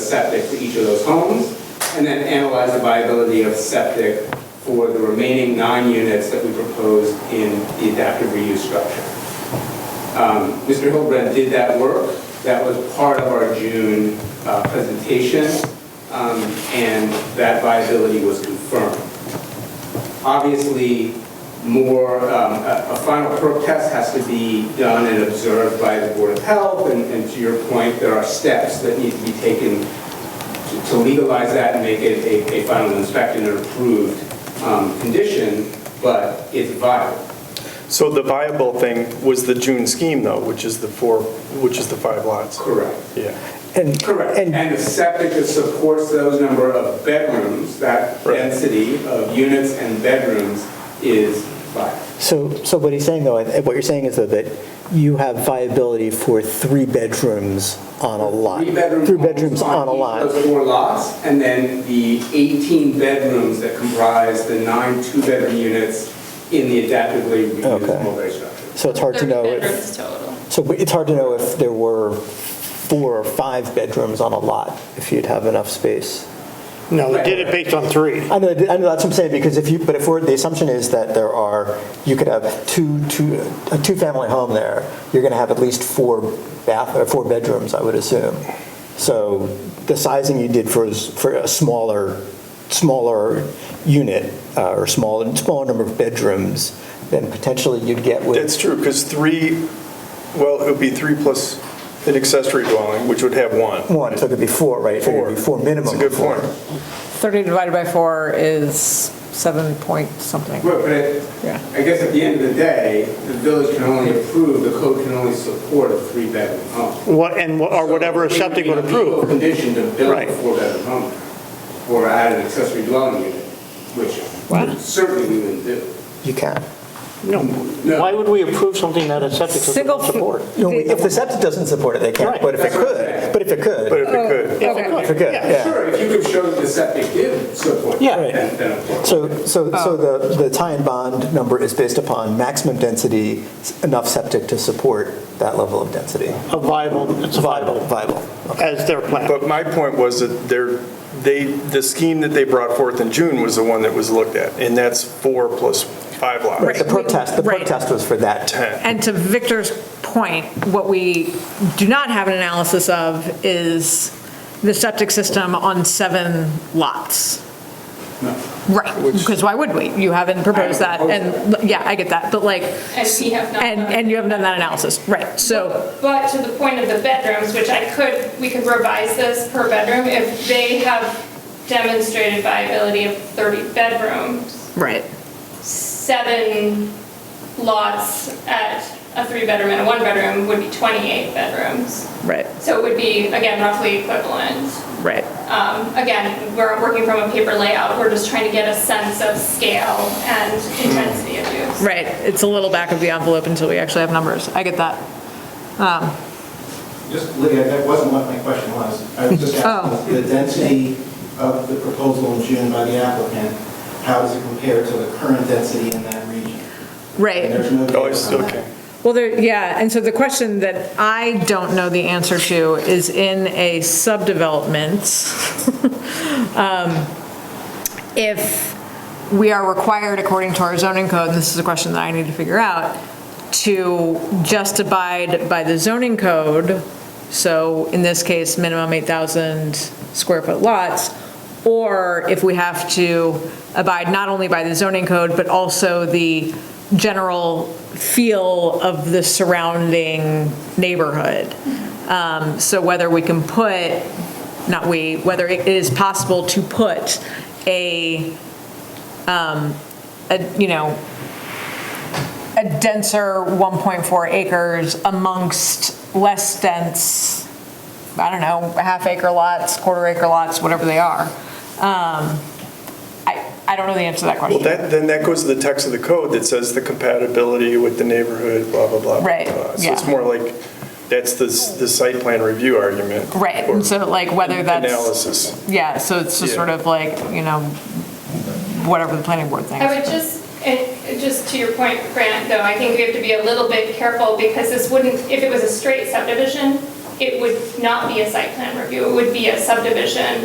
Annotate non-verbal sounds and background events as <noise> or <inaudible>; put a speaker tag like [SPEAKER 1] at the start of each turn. [SPEAKER 1] septic for each of those homes, and then analyze the viability of septic for the remaining nine units that we proposed in the adaptive reuse structure. Um, Mr. Hildebrand did that work. That was part of our June uh, presentation, um, and that viability was confirmed. Obviously, more, um, a a final perk test has to be done and observed by the Board of Health, and and to your point, there are steps that need to be taken to- to legalize that and make it a- a final inspection and approved um, condition, but it's viable.
[SPEAKER 2] So the viable thing was the June scheme though, which is the four, which is the five lots.
[SPEAKER 1] Correct.
[SPEAKER 2] Yeah.
[SPEAKER 3] And,
[SPEAKER 1] Correct,
[SPEAKER 3] and,
[SPEAKER 1] and the septic that supports those number of bedrooms, that
[SPEAKER 2] Right.
[SPEAKER 1] density of units and bedrooms is five.
[SPEAKER 3] so, so what he's saying though, and what you're saying is though that you have viability for three bedrooms on a lot.
[SPEAKER 1] Three bedrooms.
[SPEAKER 3] bedrooms on a lot.
[SPEAKER 1] Those four lots, and then the 18 bedrooms that comprise the nine two-bedroom units in the adaptively reused
[SPEAKER 3] Okay.
[SPEAKER 1] multi-structure.
[SPEAKER 3] So it's hard to
[SPEAKER 4] 30
[SPEAKER 3] know if,
[SPEAKER 4] bedrooms total.
[SPEAKER 3] so it's hard to know if there were four or five bedrooms on a lot, if you'd have enough space.
[SPEAKER 5] No, they did it based on three.
[SPEAKER 3] I know, I know, that's what I'm saying, because if you, but if we're, the assumption is that there are, you could have two, two, a two-family home there, you're gonna have at least four bath, or four bedrooms, I would assume. So the sizing you did for, s- for a smaller, smaller unit, uh, or smaller, smaller number of bedrooms, then potentially you'd get with.
[SPEAKER 2] That's true, because three, well, it would be three plus an accessory dwelling, which would have one.
[SPEAKER 3] One, so it could be four, right? It could be Four minimum.
[SPEAKER 2] It's a good
[SPEAKER 3] of four.
[SPEAKER 2] point.
[SPEAKER 6] 30 divided by 4 is 7 point something.
[SPEAKER 1] But but
[SPEAKER 6] Yeah.
[SPEAKER 1] I- I guess at the end of the day, the village can only approve, the code can only support a three-bedroom home.
[SPEAKER 5] What, and, wha- or whatever a
[SPEAKER 1] So it
[SPEAKER 5] septic would
[SPEAKER 1] be a legal
[SPEAKER 5] approve.
[SPEAKER 1] Condition to build
[SPEAKER 5] Right.
[SPEAKER 1] a four-bedroom home or add an accessory dwelling unit, which certainly we wouldn't do.
[SPEAKER 3] You can.
[SPEAKER 5] No, why would we approve something that a septic system
[SPEAKER 6] Single Oh,
[SPEAKER 5] would
[SPEAKER 6] f-
[SPEAKER 5] support?
[SPEAKER 3] No, If the septic doesn't support it, they can't,
[SPEAKER 5] Right.
[SPEAKER 3] but if it
[SPEAKER 1] That's what I'm
[SPEAKER 3] could,
[SPEAKER 1] saying.
[SPEAKER 3] but if it could.
[SPEAKER 2] But if it could.
[SPEAKER 5] If it could,
[SPEAKER 3] If it could, yeah.
[SPEAKER 1] Sure, if you could show that the septic did support
[SPEAKER 5] Yeah.
[SPEAKER 1] that, then then of course.
[SPEAKER 3] So, so, so the, the tie and bond number is based upon maximum density, s- enough septic to support that level of density.
[SPEAKER 5] A viable, it's a viable,
[SPEAKER 3] Viable.
[SPEAKER 5] as their plan.
[SPEAKER 2] But my point was that there, they, the scheme that they brought forth in June was the one that was looked at, and that's four plus five
[SPEAKER 3] Right,
[SPEAKER 2] lots.
[SPEAKER 3] the perk test, the perk
[SPEAKER 6] Right.
[SPEAKER 3] test was for that.
[SPEAKER 6] And to Victor's point, what we do not have an analysis of is the septic system on seven lots. Right, because why would we? You haven't proposed that, and, yeah, I get that, but like,
[SPEAKER 4] And we have not.
[SPEAKER 6] and,
[SPEAKER 4] done-
[SPEAKER 6] and you haven't done that analysis, right, so,
[SPEAKER 4] But to the point of the bedrooms, which I could, we could revise this per bedroom, if they have demonstrated viability of 30 bedrooms,
[SPEAKER 6] right.
[SPEAKER 4] seven lots at a three-bedroom and a one-bedroom would be 28 bedrooms.
[SPEAKER 6] Right,
[SPEAKER 4] So it would be, again, roughly equivalent.
[SPEAKER 6] right.
[SPEAKER 4] Um, Again, we're working from a paper layout, we're just trying to get a sense of scale and intensity of use.
[SPEAKER 6] Right, it's a little back of the envelope until we actually have numbers, I get that.
[SPEAKER 7] Just, Lydia, that wasn't what my question was. I was just asking the density of the proposal in June by the applicant, how does it compare to the current density in that region?
[SPEAKER 6] Right.
[SPEAKER 7] And there's no data
[SPEAKER 2] Oh, it's,
[SPEAKER 7] on that.
[SPEAKER 2] okay.
[SPEAKER 6] Well, there, yeah, and so the question that I don't know the answer to is in a subdevelopment, <laughs> um, if we are required according to our zoning code, and this is a question that I need to figure out, to just abide by the zoning code, so in this case, minimum 8,000 square foot lots, or if we have to abide not only by the zoning code, but also the general feel of the surrounding neighborhood. Um, So whether we can put, not we, whether it is possible to put a, um, a, you know, a denser 1.4 acres amongst less dense, I don't know, half acre lots, quarter acre lots, whatever they are. Um, I, I don't know the answer to that
[SPEAKER 2] Well,
[SPEAKER 6] question.
[SPEAKER 2] that, then that goes to the text of the code that says the compatibility with the neighborhood, blah, blah, blah. blah,
[SPEAKER 6] Right,
[SPEAKER 2] blah. So it's
[SPEAKER 6] yeah.
[SPEAKER 2] more like, that's the, s- the site plan review argument.
[SPEAKER 6] Right,
[SPEAKER 2] or
[SPEAKER 6] and so like whether that's,
[SPEAKER 2] Analysis.
[SPEAKER 6] yeah, so it's just
[SPEAKER 2] Yeah.
[SPEAKER 6] sort of like, you know, whatever the planning board
[SPEAKER 4] I
[SPEAKER 6] thinks.
[SPEAKER 4] would just, and just to your point, Grant, though, I think we have to be a little bit careful because this wouldn't, if it was a straight subdivision, it would not be a site plan review, it would be a subdivision